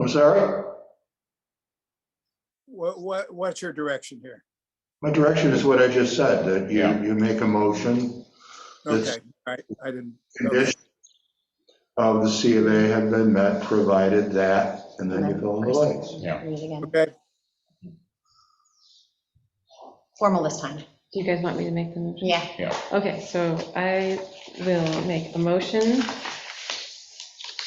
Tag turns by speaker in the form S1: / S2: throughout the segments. S1: I'm sorry?
S2: What, what, what's your direction here?
S1: My direction is what I just said, that you,
S3: Yeah.
S1: you make a motion, Yes.
S2: Okay, I, I didn't,
S1: condition of the C of A have been met, provided that, and then you fill in the blanks.
S3: Yeah.
S4: Read it again.
S2: okay,
S4: Formal this time.
S5: Do you guys want me to make the motion?
S4: Yeah.
S5: Okay, so I will make a motion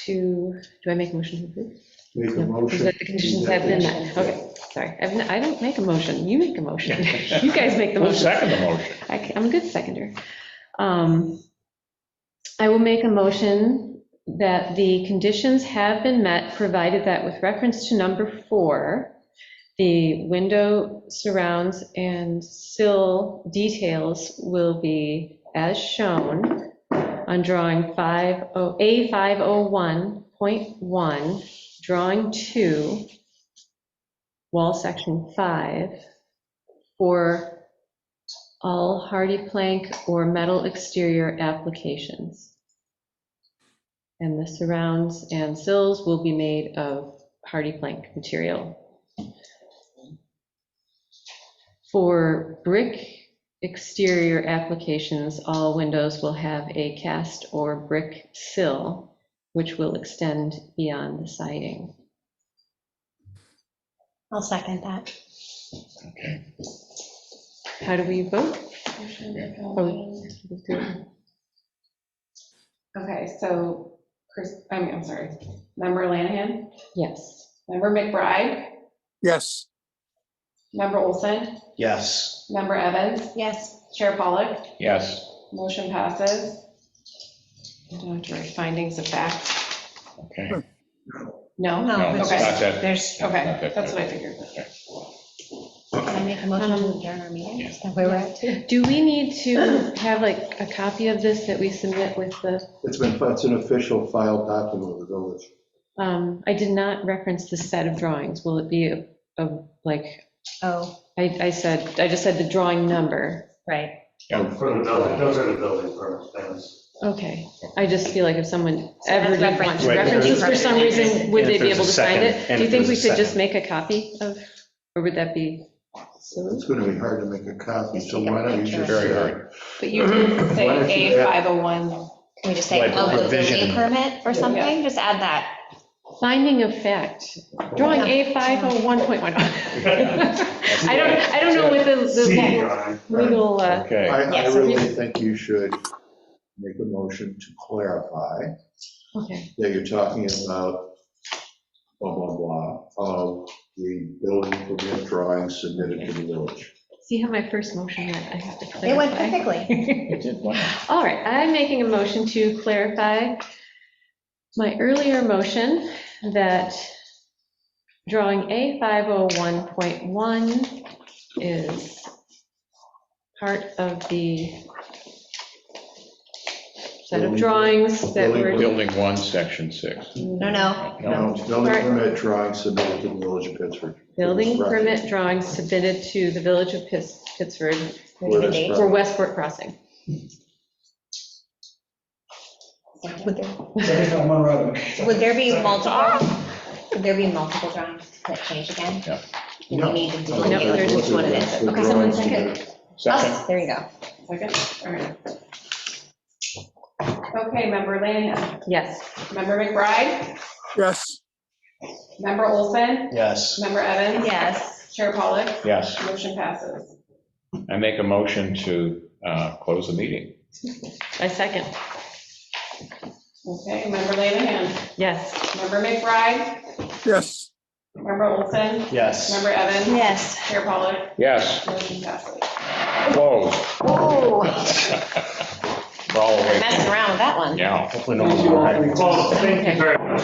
S5: to, do I make a motion to approve?
S1: Make a
S5: No, because
S1: motion.
S5: The conditions have been met. Okay, sorry. I've n- I don't make a motion. You make a motion. You guys make the
S3: Who's
S5: motion.
S3: second the motion?
S5: I ca- I'm a good seconder. Um, I will make a motion that the conditions have been met, provided that with reference to number four, the window surrounds and sill details will be as shown on drawing oh, 50, A501.1, drawing two, wall section five, for all hardy plank or metal exterior applications. And the surrounds and sills will be made of hardy plank material. For brick exterior applications, all windows will have a cast or brick sill, which will extend beyond the siding.
S4: I'll second that.
S3: Okay.
S5: How do we vote? Oh,
S6: Okay,
S5: we do it.
S6: so, Chris, I mean, I'm sorry, member Lanahan,
S5: Yes.
S6: member McBride,
S2: yes.
S6: member Olson,
S7: Yes.
S6: member Evans,
S4: Yes.
S6: Chair Pollak,
S3: Yes,
S6: motion passes. I don't have to write findings of fact,
S3: okay.
S6: no?
S4: No,
S3: No,
S4: but
S3: that's
S6: okay.
S3: not that.
S6: There's, okay, that's what I figured.
S4: Can I make a motion to adjourn our meeting? Is that where we're at?
S5: Do we need to have like a copy of this that we submit with the,
S1: It's been, it's an official filed document of the village.
S5: um, I did not reference the set of drawings. Will it be a, a- like,
S4: Oh,
S5: I, I said, I just said the drawing number.
S4: right.
S8: For the building, those are the building permit things.
S5: Okay, I just feel like if someone
S4: So
S5: ever
S4: that's
S5: did want
S4: reference.
S5: to
S7: Right,
S5: reference this for some reason, would
S7: And
S5: they
S7: if
S5: be
S7: there's a
S5: able to
S7: second,
S5: find it?
S7: and
S5: Do you
S7: if
S5: think we
S7: there's a
S5: should just
S7: second.
S5: make a copy of, or would that be?
S1: It's going to be hard to make a copy, so why don't you just.
S3: Very
S1: uh,
S3: hard.
S6: But you did
S1: Why don't
S6: say
S1: you add-
S6: A501,
S4: Can we just say
S7: Like
S4: of the building
S7: revision.
S4: permit or something? Just add that.
S5: Finding of fact, drawing A501.1. I don't, I don't know what the-
S8: See,
S5: the
S8: drawing.
S5: legal, uh,
S3: Okay,
S1: I, I
S4: Yes.
S1: really think you should make a motion to clarify
S5: okay.
S1: that you're talking about blah, blah, blah, of the building permit drawing submitted to the village.
S5: See how my first motion went, I have to clarify.
S4: It went perfectly.
S3: it did one.
S5: All right, I'm making a motion to clarify my earlier motion that drawing A501.1 is part of the set of drawings that were,
S3: Building one, section six.
S4: No, no.
S1: No,
S3: No,
S1: it's building permit drawing submitted to the village of Pittsburgh.
S5: building permit drawings submitted to the Village of Pitts- Pittsburgh
S4: We need a
S1: Where
S4: date.
S1: it's
S5: for Westport Crossing.
S4: Would there-
S8: One rather.
S4: Would there be multiple, would there be multiple drawings that change again?
S3: Yeah.
S4: Do we need to
S1: No,
S4: delineate
S5: there's
S4: which one it
S1: that's
S4: is?
S1: the
S4: Okay, someone
S1: drawing
S4: second.
S1: submitted.
S3: Second,
S4: Oh, There you go.
S6: second, all right. Okay, member Lanahan,
S5: Yes.
S6: member McBride,
S2: Yes.
S6: member Olson,
S7: Yes.
S6: member Evans.
S4: Yes.
S6: Chair Pollak,
S3: yes.
S6: motion passes.
S3: I make a motion to uh, close the meeting.
S5: I second,
S6: Okay, member Lanahan,
S5: yes.
S6: member McBride,
S2: Yes.
S6: member Olson,
S7: Yes.
S6: member Evans.
S4: Yes.
S6: Chair Pollak,
S3: Yes,
S6: motion passes.
S3: closed.
S4: Oh,
S3: We're all awake.
S4: messing around with that one.
S3: Yeah.
S7: Hopefully no one's.
S8: Well, thank you very much.